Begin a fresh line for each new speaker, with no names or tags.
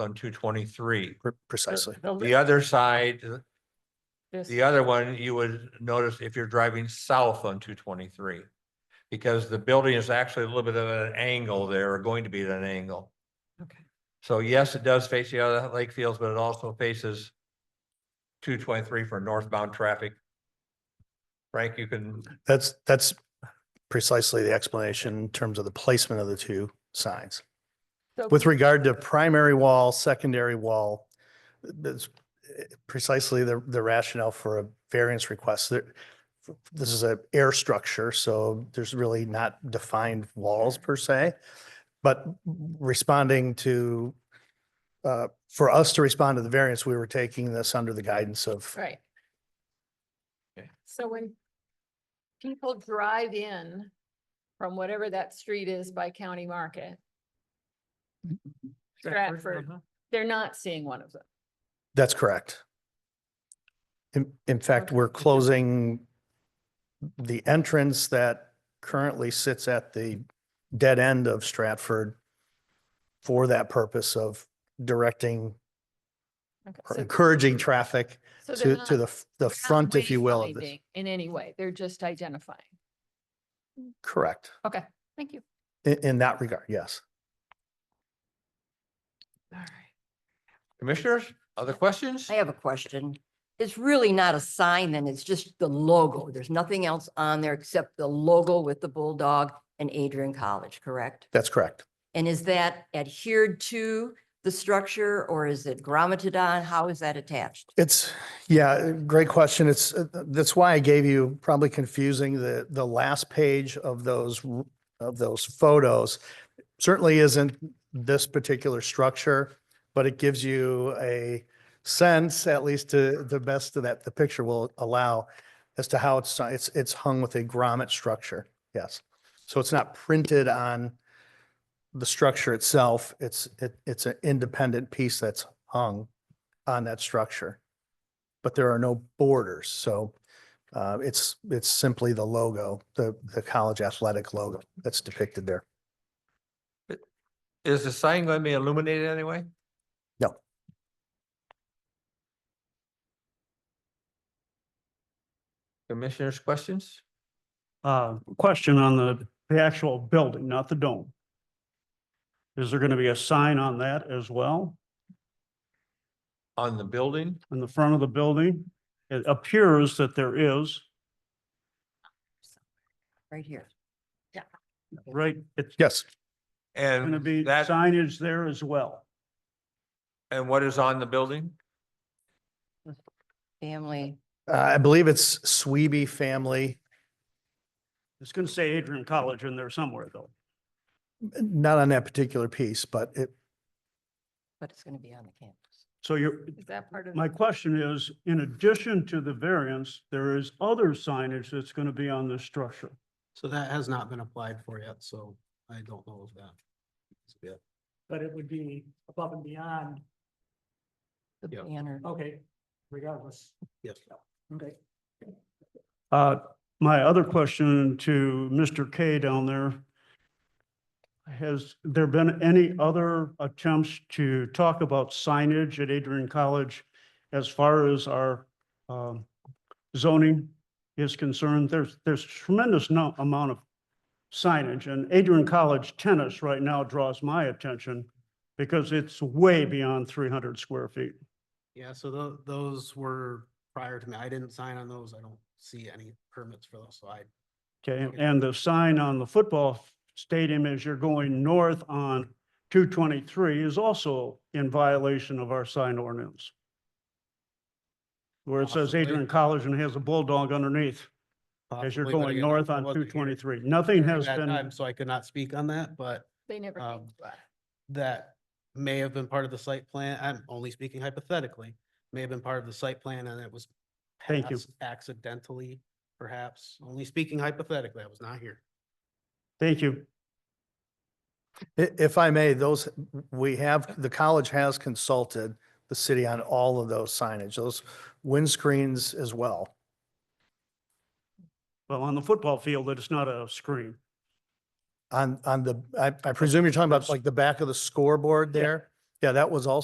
on two twenty-three.
Pre- Precisely.
The other side,
This-
the other one, you would notice if you're driving south on two twenty-three. Because the building is actually a little bit at an angle there, or going to be at an angle.
Okay.
So yes, it does face the other lake fields, but it also faces two twenty-three for northbound traffic. Frank, you can,
That's, that's precisely the explanation in terms of the placement of the two signs.
So-
With regard to primary wall, secondary wall, that's precisely the, the rationale for a variance request. There- This is a air structure, so there's really not defined walls per se. But responding to, uh, for us to respond to the variance, we were taking this under the guidance of
Right.
Okay.
So when people drive in from whatever that street is by County Market, Stratford, they're not seeing one of them.
That's correct. In, in fact,
Okay.
we're closing the entrance that currently sits at the dead end of Stratford for that purpose of directing,
Okay,
or
so-
encouraging traffic
so
to,
they're
to
not-
the, f- the
they're not
front, if you will, of this.
wayfinding In any way, they're just identifying.
Correct.
Okay, thank you.
In, in that regard, yes.
All right.
commissioners, other questions?
I have a question. It's really not a sign then, it's just the logo. There's nothing else on there except the logo with the bulldog and Adrian College, correct?
That's correct.
And is that adhered to the structure or is it grommeted on? How is that attached?
It's, yeah, great question. It's, uh, that's why I gave you probably confusing the, the last page of those, r- of those photos. Certainly isn't this particular structure, but it gives you a sense, at least to the best of that the picture will allow, as to how it's, it's, it's hung with a grommet structure. Yes. So it's not printed on the structure itself. It's, it, it's an independent piece that's hung on that structure. But there are no borders, so uh, it's, it's simply the logo, the, the college athletic logo that's depicted there.
Is the sign going to be illuminated anyway?
No.
Commissioners, questions?
Uh, question on the, the actual building, not the dome. Is there gonna be a sign on that as well,
On the building?
in the front of the building? It appears that there is,
Right here.
right? It's
Yes,
gonna
And
be
that,
signage there as well.
and what is on the building?
Family,
uh, I believe it's Sweeby family,
It's gonna say Adrian College in there somewhere though.
not on that particular piece, but it,
but it's going to be on the campus.
So you're,
Is that part of?
my question is, in addition to the variance, there is other signage that's gonna be on this structure.
So that has not been applied for yet, so I don't know of that. Yeah.
but it would be above and beyond,
The
Yeah.
banner.
okay, regardless.
Yes.
Okay.
Uh, my other question to Mr. K down there. Has there been any other attempts to talk about signage at Adrian College as far as our um, zoning is concerned? There's, there's tremendous no, amount of signage and Adrian College tennis right now draws my attention because it's way beyond three hundred square feet.
Yeah, so tho- those were prior to me. I didn't sign on those. I don't see any permits for those, so I,
Okay,
Okay.
and the sign on the football stadium as you're going north on two twenty-three is also in violation of our sign ordinance. Where it says
Possibly.
Adrian College and has a bulldog underneath as you're
Possibly, but
going
again, I
north on
wasn't
two
here
twenty-three. Nothing
during
has
that time,
been,
So I could not speak on that, but
They never came.
um, that may have been part of the site plan. I'm only speaking hypothetically. May have been part of the site plan and it was
Thank you.
passed accidentally, perhaps. Only speaking hypothetically. I was not here.
thank you.
i- if I may, those, we have, the college has consulted the city on all of those signage, those windscreens as well.
Well, on the football field, it's not a screen.
On, on the, I, I presume you're talking about
That's-
like the back of the scoreboard there? Yeah, that was also